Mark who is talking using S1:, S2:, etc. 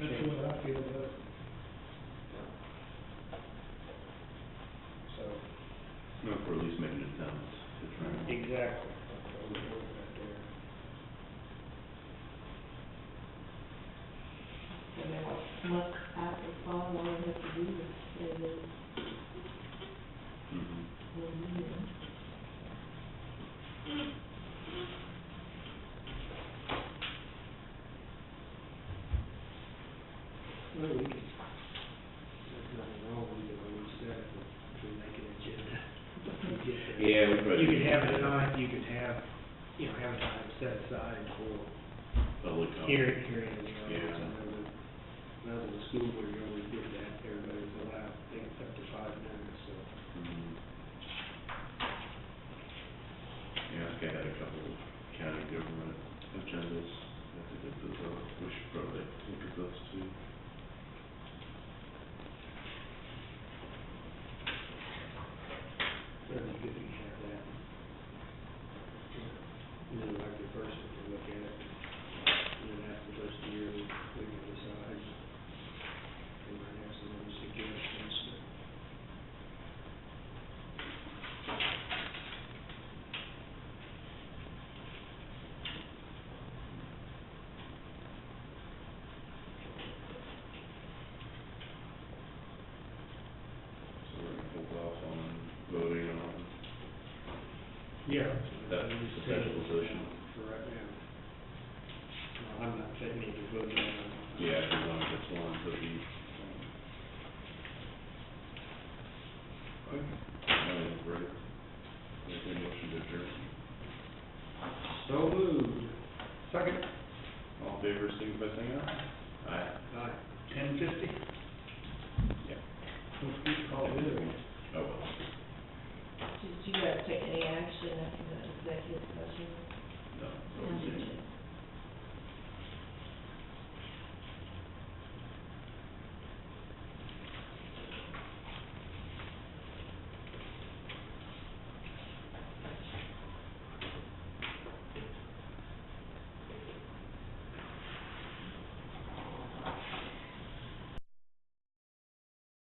S1: That's what I feel about it. So,
S2: No, for at least making an attempt to try and.
S3: Exactly.
S1: that's what we're looking at there.
S4: And then look at the fall, all we have to do is, and then
S2: Mhm.
S4: we'll be there.
S1: Well, we can, there's nothing wrong with it, we said, if we make an agenda. but we get that.
S2: Yeah, we probably
S1: You could
S2: should.
S1: have it on, you could have, you know, have a time set aside for
S2: Public comment.
S1: Hearing, hearing is right. I
S2: Yeah.
S1: know that- When I was in school, where you always did that, everybody's allowed, I think it's up to five minutes, so.
S2: Mhm. Yeah, I think I had a couple of county government agendas, I think that those are, we should probably look at those too.
S1: That'd be good if you have that. And then like the first, we can look at it, and then after the first year, we we can decide. We might have some other suggestions.
S2: So we're gonna hold off on voting on
S1: Yeah.
S2: that potential position.
S1: For right now. Well, I'm not taking any vote on it.
S2: Yeah, if you want, that's one, so you. Okay. I think we're ready. Make a motion to adjourn.
S1: So moved.
S2: Second. All in favor, signify by saying aye. Aye.
S1: Aye.
S3: Ten fifty?
S2: Yeah.
S1: Call it in.
S2: Oh, well.
S4: Did you guys take any action after that executive session?
S2: No.
S4: No.